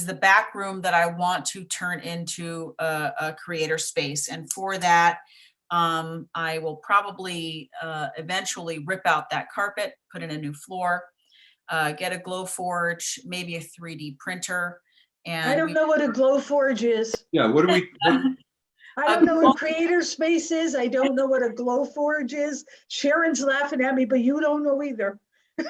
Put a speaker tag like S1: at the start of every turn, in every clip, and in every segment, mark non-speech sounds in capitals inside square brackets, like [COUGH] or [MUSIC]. S1: is the back room that I want to turn into a, a creator space. And for that, um, I will probably, uh, eventually rip out that carpet, put in a new floor, uh, get a glow forge, maybe a 3D printer. And
S2: I don't
S1: we-
S2: know what a Glowforge is.
S3: Yeah, what
S1: [LAUGHS]
S3: do we, what-
S2: I
S1: A
S2: don't know
S1: glow-
S2: what Creator Space is. I don't know what a Glowforge is. Sharon's laughing at me, but you don't know either.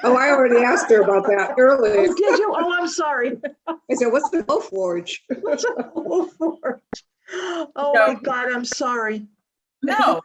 S4: Oh, I already asked her about that earlier.
S2: Oh, did you? Oh, I'm sorry. [LAUGHS]
S4: I said, what's the Gulf Forge?
S2: What's a Glowforge? Oh
S1: No.
S2: my God, I'm sorry.
S1: No,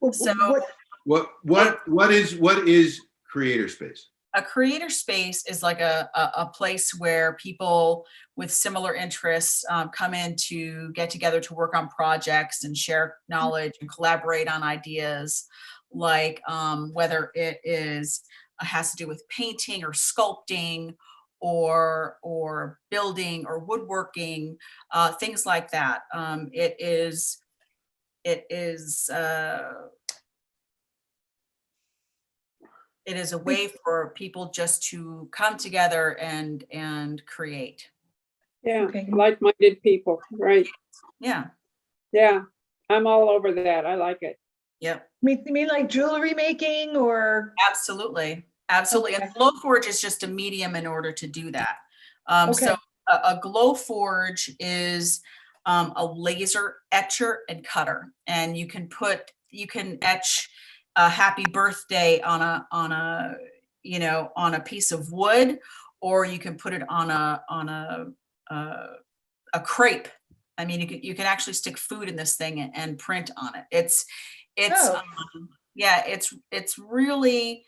S2: Wh- wh-
S1: So-
S2: what-
S3: what, what, what is, what is creator space?
S1: a creator space is like a, a, a place where people with similar interests um, come in to get together to work on projects and share knowledge and collaborate on ideas like um, whether it is uh, has to do with painting or sculpting or or building or woodworking uh, things like that um, it is it is uh, it is a way for people just to come together and and create
S5: Yeah,
S2: Okay.
S5: like-minded people, right?
S1: yeah
S5: Yeah, I'm all over that. I like it.
S1: yep
S2: mean- You mean like jewelry making or?
S1: absolutely absolutely and glow forge is just a medium in order to do that um so
S2: Okay.
S1: a, a glow forge is um, a laser etcher and cutter and you can put you can etch a happy birthday on a on a you know on a piece of wood or you can put it on a on a uh, a crepe i mean you can you can actually stick food in this thing and, and print on it it's it's
S2: Oh.
S1: um, yeah it's it's really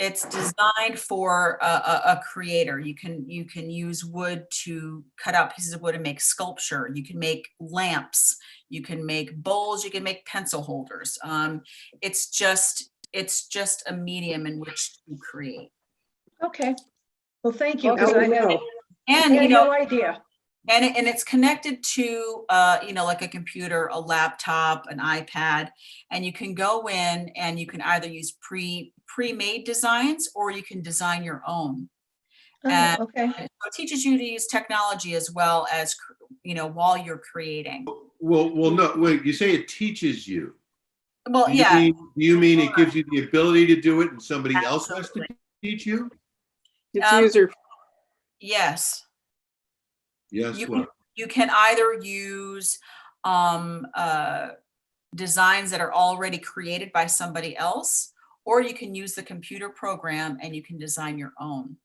S1: it's designed for a, a, a creator you can you can use wood to cut out pieces of wood and make sculpture you can make lamps you can make bowls you can make pencil holders um, it's just it's just a medium in which to create
S2: Okay. Well, thank you. 'cause
S4: Oh,
S2: I had-
S4: no.
S1: and
S2: I
S1: you
S2: had
S1: know
S2: no idea.
S1: And it, and it's connected to, uh, you know, like a computer, a laptop, an iPad, and you can go in and you can either use pre, pre-made designs or you can design your own.
S2: Oh,
S1: and-
S2: Okay.
S1: And so It teaches you to use technology as well as, cr- you know, while you're creating.
S3: Well, well, no, wait, you say it teaches you.
S1: Well,
S3: Do you
S1: yeah,
S3: mean- Do you mean it gives you the ability to do it and somebody else has to
S1: Absolutely.
S3: teach you?
S5: It's
S1: Um,
S5: user,
S1: yes.
S3: Yes,
S1: You
S3: well,
S1: You can either use, um, uh, designs that are already created by somebody else, or you can use the computer program and you can design your own.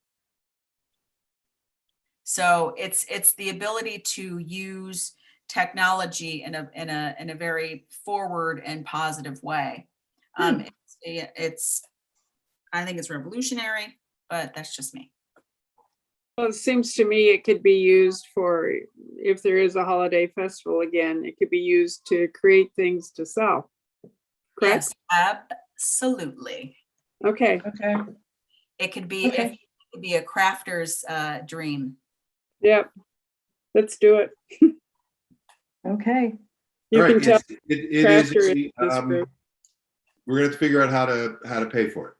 S1: So it's, it's the ability to use technology in a, in a, in a very forward and positive way. Um, it's- yeah, it's, I think it's revolutionary, but that's just me.
S5: well, it seems to me it could be used for, if there is a holiday festival again, it could be used to create things to sell. Correct?
S1: Yes, Absolutely.
S5: Okay,
S2: Okay.
S1: It could be, it
S2: Okay.
S1: could be a crafter's, uh, dream.
S5: yep. Let's do it.
S2: Okay.
S3: all
S5: You
S3: right,
S5: can tell.
S3: it's- it it is,
S5: Crafter is this
S3: um,
S5: group.
S3: we're gonna have to figure out how to, how to pay for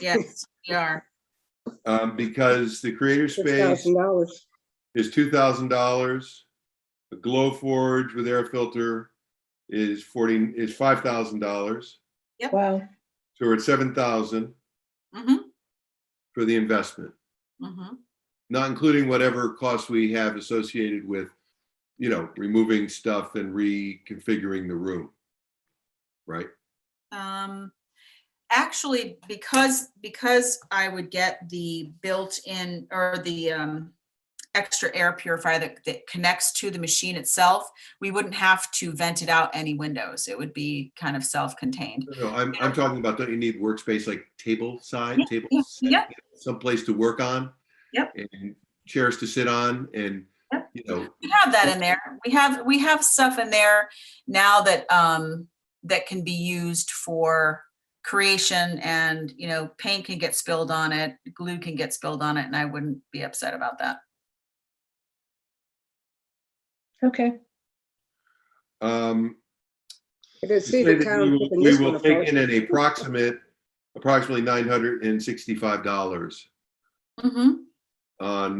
S1: Yes, we are.
S3: it. Um, because the creator space
S4: $6,000.
S3: is two thousand dollars. A glow forge with air filter is forty, is five thousand dollars.
S2: Wow.
S3: So we're at seven thousand
S1: Mm-hmm,
S3: for the investment.
S1: mm-hmm.
S3: not including whatever costs we have associated with, you know, removing stuff and reconfiguring the room. Right?
S1: Um, actually, because, because I would get the built-in or the, um, extra air purifier that, that connects to the machine itself, we wouldn't have to vent it out any windows. It would be kind of self-contained.
S3: No, I'm, I'm talking about, don't you need workspace like table side, table?
S1: yeah,
S3: set,
S1: yeah.
S3: Someplace to work on?
S1: Yep.
S3: And chairs to sit on and,
S1: Yep.
S3: you know,
S1: We have that in there. We have, we have stuff in there now that, um, that can be used for creation and, you know, paint can get spilled on it, glue can get spilled on it, and I wouldn't be upset about that.
S2: Okay.
S3: um,
S4: It is
S3: to say
S4: Cedar
S3: that we
S4: Town.
S3: will-
S4: keeping
S3: we
S4: this one
S3: will take
S4: afloat.
S3: in an approximate, approximately nine hundred and sixty-five dollars
S1: Mm-hmm.
S3: on